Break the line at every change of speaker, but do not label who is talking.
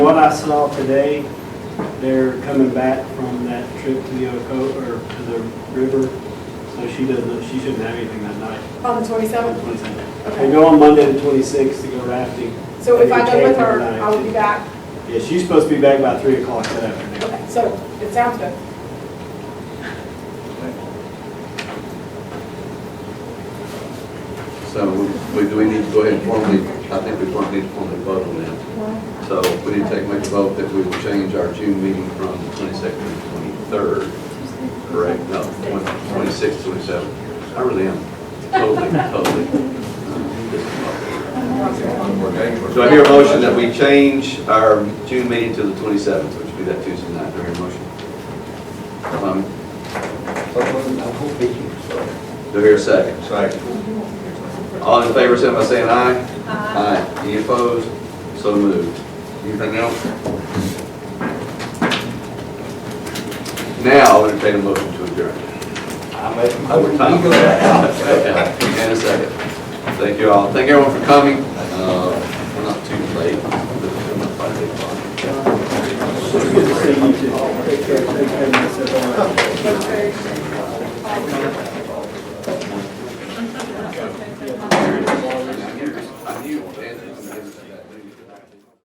what I saw today, they're coming back from that trip to the Oco, or to the river, so she doesn't, she shouldn't have anything that night.
On the twenty-seventh?
27th.
Okay.
They go on Monday the twenty-sixth to go rafting.
So if I go with her,
They
I will be
came
back.
tonight. Yeah, she's supposed to be back by three o'clock that afternoon.
Okay, so it sounds good.
So we, do we need to go ahead and formally, I think we formally need to formally vote on that. So we need to take, make a vote that we will change our June meeting from the twenty-second to the twenty-third, correct? No, twenty-sixth, twenty-seventh. I really am totally, totally. uh, Do I hear a motion that we change our June meeting to the twenty-seventh, which would be that Tuesday night? Do I hear a motion? Um, Do I hear a second? All in favor, say by saying aye. Aye. Any opposed? So moved. Anything else? Now, I'll entertain a motion to adjourn. Overtime. And a second. Thank you all. Thank everyone for coming. Uh,